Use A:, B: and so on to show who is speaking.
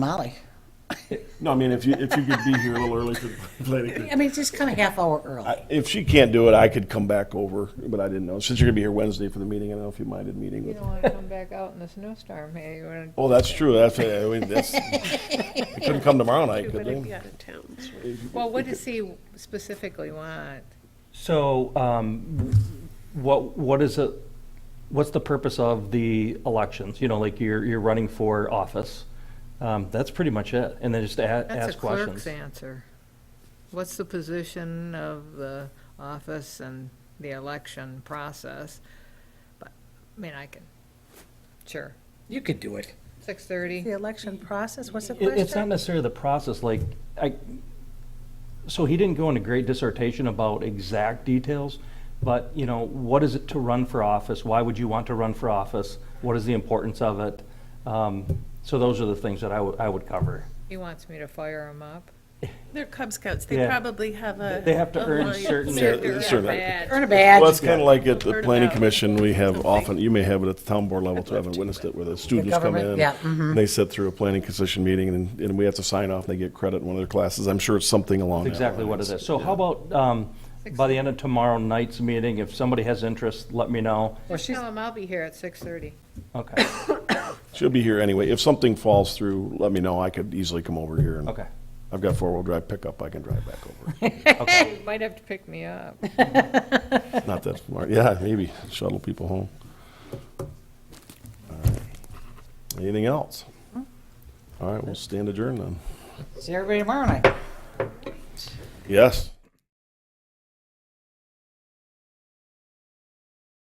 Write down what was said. A: Molly.
B: No, I mean, if you, if you could be here a little early for the planning. commission.
A: I mean, it's just kind of half hour early.
B: I- If she can't do it, I could come back over, but I didn't know. Since you're gonna be here Wednesday for the meeting, I don't know if you minded meeting
C: You
B: with.
C: don't want to come back out in the snowstorm, hey, you want
B: Oh, that's true. That's, I mean, that's, I couldn't come tomorrow night,
D: We're
B: could
D: gonna
B: they?
D: be out of town. so-
C: to, well, what does he specifically want?
E: So, um, what, what is it, what's the purpose of the elections? You know, like you're, you're running for office. Um, that's pretty much it. And then just a-
C: That's a
E: ask
C: clerk's
E: questions.
C: answer. What's the position of the office and the election process? But, I mean, I can, sure,
A: You could do it.
C: six thirty.
A: The election process, what's the
E: It, it's not
A: question?
E: necessarily the process, like, I, so he didn't go into great dissertation about exact details, but, you know, what is it to run for office? Why would you want to run for office? What is the importance of it? Um, so those are the things that I would, I would cover.
C: He wants me to fire him up.
D: They're Cub Scouts, they
E: Yeah.
D: probably have a.
E: They have to
D: a
E: earn
D: line.
E: certain-
D: They're-
B: Certain-
D: they're-
B: certain-
A: Earn a
B: Well,
A: badge.
B: it's kinda like at the
D: Heard
B: planning
D: about
B: commission, we have
D: something.
B: often, you may have it at the town board level too, I haven't witnessed it, where the students come
A: government,
B: in.
A: yeah,
B: and They sit through a planning commission meeting and, and we have to sign off and they get credit in one of their classes. I'm sure it's something along that
E: That's exactly what it
B: lines.
E: is. So how about, um, by the end of tomorrow night's meeting, if somebody has interest, let me know.
A: Well,
C: Just
A: she's-
C: tell him I'll be here at six thirty.
E: Okay,
B: She'll be here anyway. If something falls through, let me know. I could easily come over here. and-
E: okay.
B: I've got four-wheel drive pickup. I can drive back over.
C: Hey, you might have to pick me up.
B: Not that far. Yeah, maybe shuttle people home. All right. Anything else? All right, we'll stand adjourned then.
A: See everybody tomorrow night.
B: Yes.